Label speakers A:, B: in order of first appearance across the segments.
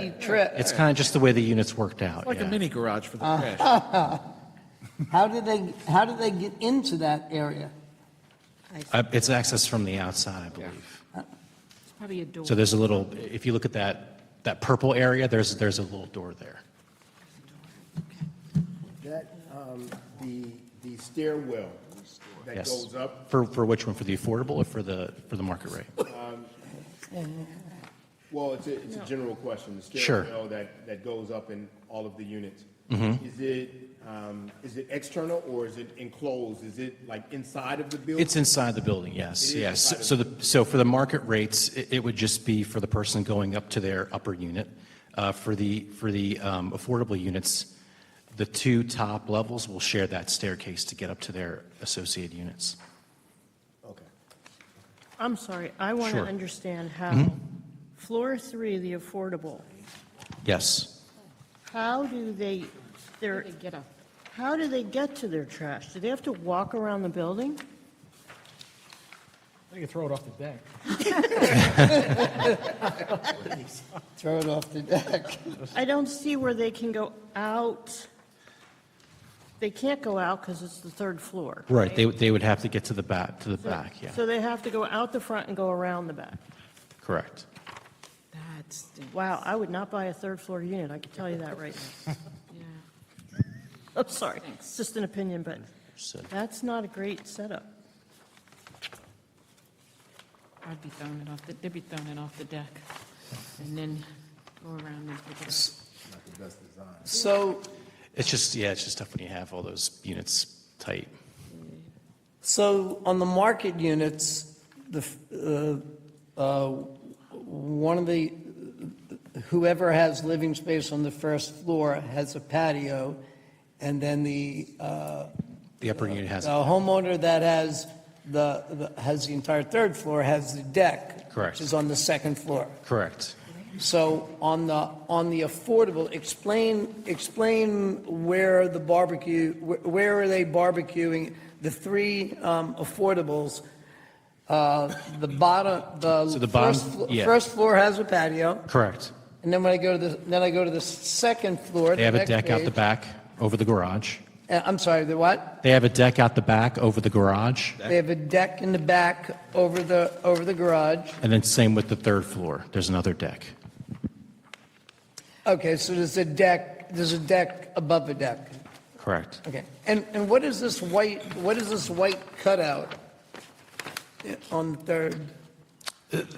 A: mini trip.
B: It's kind of just the way the units worked out.
C: Like a
B: yeah.
C: mini garage for the trash.
A: How did they, how did they get into that area?
B: Uh, It's accessed from the outside, I believe.
D: Probably a door.
B: So there's a little, if you look at that, that purple area, there's, there's a little door there.
E: That, um, the, the stairwell that
B: Yes.
E: goes up,
B: For, for which one? For the affordable or for the, for the market rate?
E: well, it's a, it's a general question. The
B: Sure.
E: stairwell that, that goes up in all of the units.
B: Mm-hmm.
E: Is it, um, is it external or is it enclosed? Is it like inside of the building?
B: It's inside the building, yes,
E: It is
B: yes.
E: inside
B: So the, so for the market rates, it, it would just be for the person going up to their upper unit. Uh, for the, for the, um, affordable units, the two top levels will share that staircase to get up to their associated units.
E: Okay.
F: I'm sorry, I want to
B: Sure. Hmm?
F: understand how, floor three, the affordable,
B: Yes.
F: how do they, their,
D: Where they get a-
F: how do they get to their trash? Do they have to walk around the building?
C: They can throw it off the deck.
A: Throw it off the deck.
F: I don't see where they can go out. They can't go out because it's the third floor.
B: Right, they, would- they would have to get to the back, to the back, yeah,
F: So they have to go out the front and go around the back.
B: correct.
D: That's, the-
F: Wow, I would not buy a third floor unit, I can tell you that right now.
D: yeah.
F: I'm sorry, it's just an opinion, but
B: So-
F: that's not a great setup.
D: I'd be throwing it off, the- they'd be throwing it off the deck and then go around and pick it up.
A: So,
B: It's just, yeah, it's just tough when you have all those units tight.
A: so on the market units, the, uh, uh, one of the, whoever has living space on the first floor has a patio, and then the uh,
B: The upper unit has,
A: the homeowner that has the, the- has the entire third floor has the deck.
B: Correct.
A: Which is on the second floor.
B: correct.
A: So on the, on the affordable, explain, explain where the barbecue, where- where are they barbecuing? The three um, affordables, uh, the bottom,
B: So the
A: the
B: bottom-
A: first, flo-
B: yeah.
A: first floor has a patio,
B: Correct.
A: and then when I go to the, then I go to the second floor.
B: They
A: the
B: have a
A: next
B: deck out the
A: page-
B: back over the garage.
A: uh, I'm sorry, the what?
B: They have a deck out the back over the garage,
A: They have a deck in the back over the, over the garage.
B: and then same with the third floor. There's another deck.
A: Okay, so there's a deck, there's a deck above a deck.
B: Correct.
A: Okay, and, and what is this white, what is this white cutout on the third?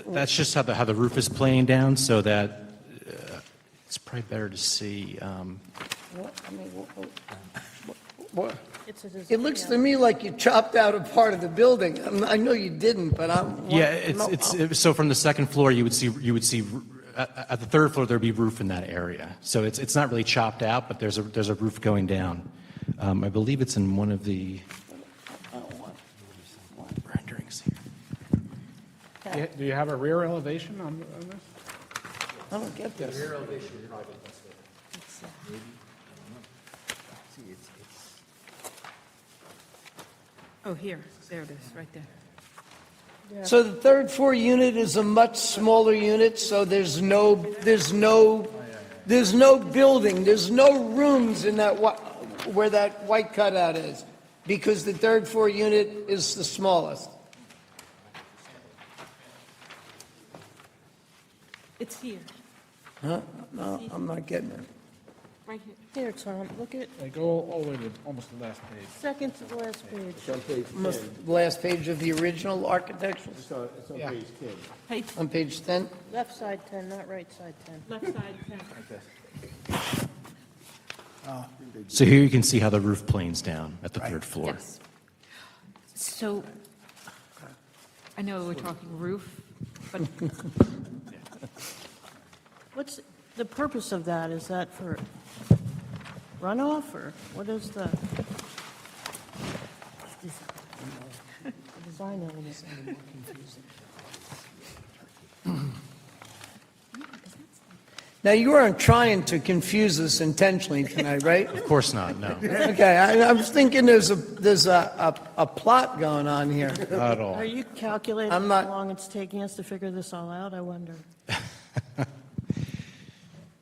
B: That's just how the, how the roof is playing down, so that, uh, it's probably better to see, um,
A: What, I mean, what- what- what-
F: It's a
A: It looks to me like you chopped out a part of the building. I'm- I know you didn't, but I'm.
B: yeah, it's, it's, it- so from the second floor, you would see, you would see, at, at the third floor, there'd be roof in that area. So it's, it's not really chopped out, but there's a, there's a roof going down. Um, I believe it's in one of the renderings here.
C: Do you- Do you have a rear elevation on on this?
A: I don't get this.
D: Oh, here, there it is, right there.
A: So the third floor unit is a much smaller unit, so there's no, there's no, there's no building, there's no rooms in that, whi- where that white cutout is, because the third floor unit is the smallest.
D: It's here,
A: Huh? No, Oh, I'm not getting it.
D: right here.
F: Here, Tom, look at
C: They go all all the way to almost the last page.
F: second to the last page.
A: Must- Last page of the original architecture,
E: It's on, it's on page ten.
D: Page,
A: on page 10.
F: Left side 10, not right side 10.
D: left side, yeah.
B: So here you can see how the roof planes down at the third floor.
D: Yes. So, I know we're talking roof, but
F: What's, the purpose of that, is that for runoff, or what is the? Design element.
A: Now, you aren't trying to confuse us intentionally tonight, right?
B: Of course not, no,
A: Okay, I I was thinking there's a, there's a, a a plot going on here.
B: not at all.
F: Are you calculating
A: I'm not-
F: how long it's taking us to figure this all out, I wonder?